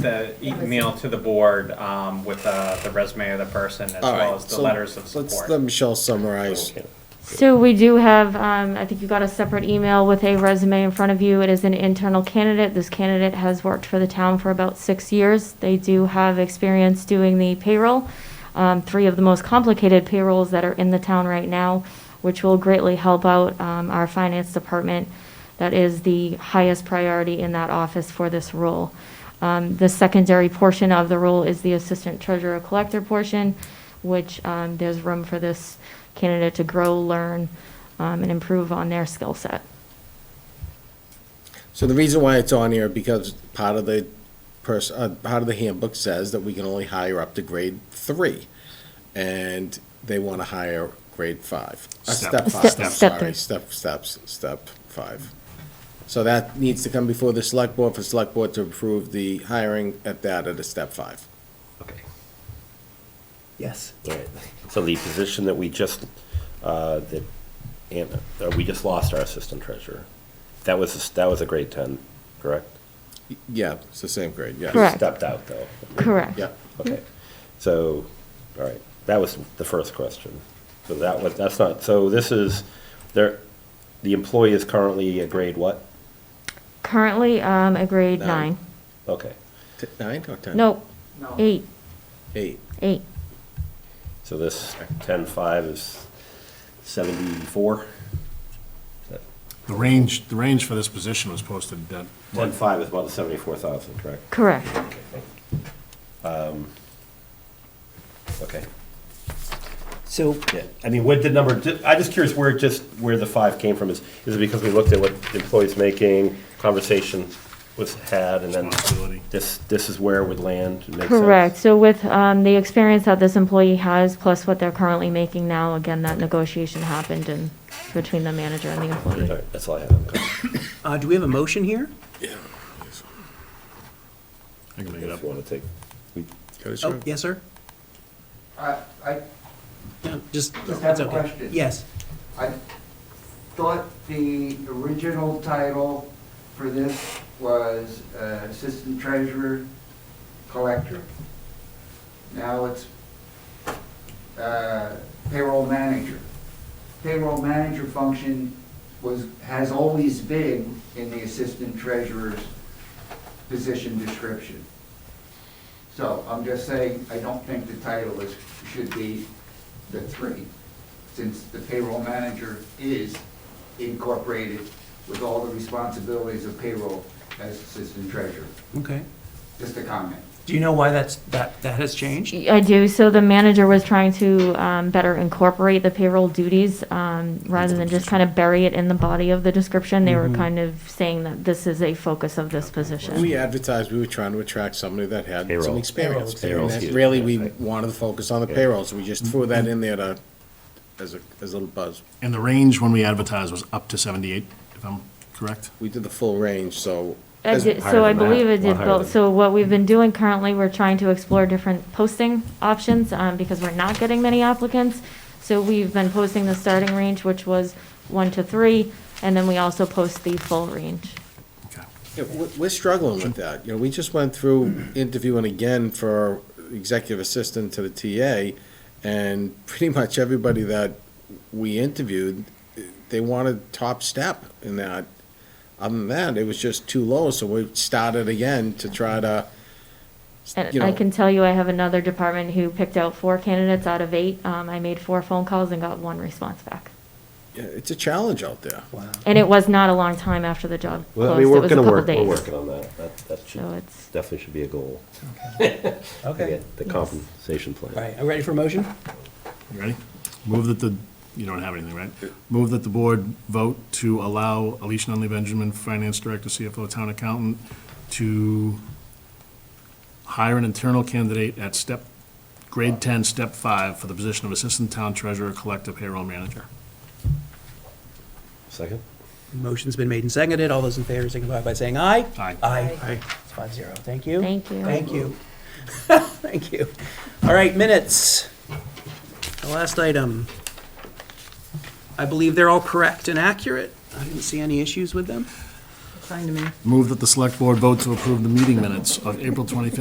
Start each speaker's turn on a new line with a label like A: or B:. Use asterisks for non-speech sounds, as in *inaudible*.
A: the email to the board um, with uh, the resume of the person as
B: All
A: well
B: right,
A: as the
B: so
A: letters of
B: Let's
A: support.
B: let Michelle summarize.
C: So we do have, um, I think you got a separate email with a resume in front of you. It is an internal candidate. This candidate has worked for the town for about six years. They do have experience doing the payroll, um, three of the most complicated payrolls that are in the town right now, which will greatly help out, um, our finance department. That is the highest priority in that office for this role. Um, The secondary portion of the role is the assistant treasurer collector portion, which um, there's room for this candidate to grow, learn, um, and improve on their skill set.
B: So the reason why it's on here, because part of the person, uh, part of the handbook says that we can only hire up to grade three. And they wanna hire grade five, uh,
D: Step.
B: step five,
C: Step.
B: I'm
C: Step
B: sorry,
C: three.
B: step, steps, step five. So that needs to come before the select board, for select board to approve the hiring at that at a step five.
D: Okay.
E: Yes. Right. So the position that we just, uh, that, Anna, uh, we just lost our assistant treasurer. That was, that was a grade ten, correct?
B: Yeah, it's the same grade, yes.
C: Correct.
E: Stepped out though.
C: Correct.
B: Yeah,
E: Okay. So, all right, that was the first question. So that was, that's not, so this is, there, the employee is currently a grade what?
C: Currently, um, a grade
B: Nine.
C: nine.
E: Okay.
B: T- nine or ten?
C: No,
A: No.
C: eight,
B: Eight,
C: eight.
E: So this ten-five is seventy-four?
D: The range, the range for this position was posted at,
E: Ten-five is about the seventy-four thousand, correct?
C: Correct.
E: Okay.
F: So,
E: Yeah, I mean, what did number, ju- I'm just curious where just, where the five came from, is, is it because we looked at what the employees making, conversation was had, and then
D: Responsibility.
E: this, this is where it would land, it makes sense?
C: Correct. So with um, the experience that this employee has, plus what they're currently making now, again, that negotiation happened in between the manager and the
E: All
C: employee.
E: right, that's all I have. Okay.
F: uh, do we have a motion here?
D: I can make it up.
E: If you want to take, we-
B: Go to
F: Oh,
B: Sharon.
F: yes, sir?
G: I, I
F: No, just,
G: Just have
F: it's
G: a
F: okay.
G: question.
F: Yes.
G: I thought the original title for this was uh, Assistant Treasurer Collector. Now it's uh, Payroll Manager. Payroll Manager function was, has always been in the Assistant Treasurer's position description. So I'm just saying, I don't think the title is, should be the three, since the payroll manager is incorporated with all the responsibilities of payroll as assistant treasurer.
F: Okay.
G: Just a comment.
F: Do you know why that's, that, that has changed?
C: I do. So the manager was trying to um, better incorporate the payroll duties um, rather than just kind of bury it in the body of the description. They were kind of saying that this is a focus of this
B: When we
C: position.
B: advertised, we were trying to attract somebody that had some
E: Payroll.
B: experience.
E: Payroll's
B: And that
E: huge,
B: Really,
E: yeah,
B: we
E: right. Mm-hmm.
B: wanted to focus on the payrolls, we just threw that in there to, as a, as a little buzz.
D: And the range when we advertised was up to seventy-eight, if I'm correct?
B: We did the full range, so.
C: I
B: as-
C: did-
E: higher
C: So I
E: than that,
C: believe it
E: a lot
C: did
E: higher
C: both.
E: than-
C: So what we've
B: Mm-hmm.
C: been doing currently, we're trying to explore different posting options um, because we're not getting many applicants. So we've been posting the starting range, which was one to three, and then we also post the full range.
D: Okay.
B: Yeah, we- We're struggling with that, you know, we just went through interviewing again for executive assistant to the TA, and pretty much everybody that we interviewed, they wanted top step in that. Other than that, it was just too low, so we started again to try to, you
C: And
B: know.
C: I can tell you, I have another department who picked out four candidates out of eight. Um, I made four phone calls and got one response back.
B: Yeah, It's a challenge out there.
C: And it was not a long time after the job
E: Well, I
C: closed.
E: mean,
C: It
E: we're
C: was a
E: gonna
C: couple
E: work, we're
C: days.
E: working on that, that, that should,
C: So it's-
E: definitely should be a goal. *laughs*
F: Okay.
E: Again, The compensation plan.
F: All right, I'm ready for a motion?
D: You ready? Move that the, you don't have anything, right? Move that the board vote to allow Alicia Nunley Benjamin, Finance Director, CFO, Town Accountant, to hire an internal candidate at step, grade 10, step 5, for the position of Assistant Town Treasurer, Collective Payroll Manager.
E: Second?
F: Motion's been made and seconded. All those in favor signify by saying aye.
D: Aye.
F: Aye. Aye. It's five zero. Thank you.
C: Thank you.
F: Thank you. *laughs* Thank you. All right, minutes. The last item. I believe they're all correct and accurate. I didn't see any issues with them.
H: fine to me.
D: Move that the select board vote to approve the meeting minutes of April 25th,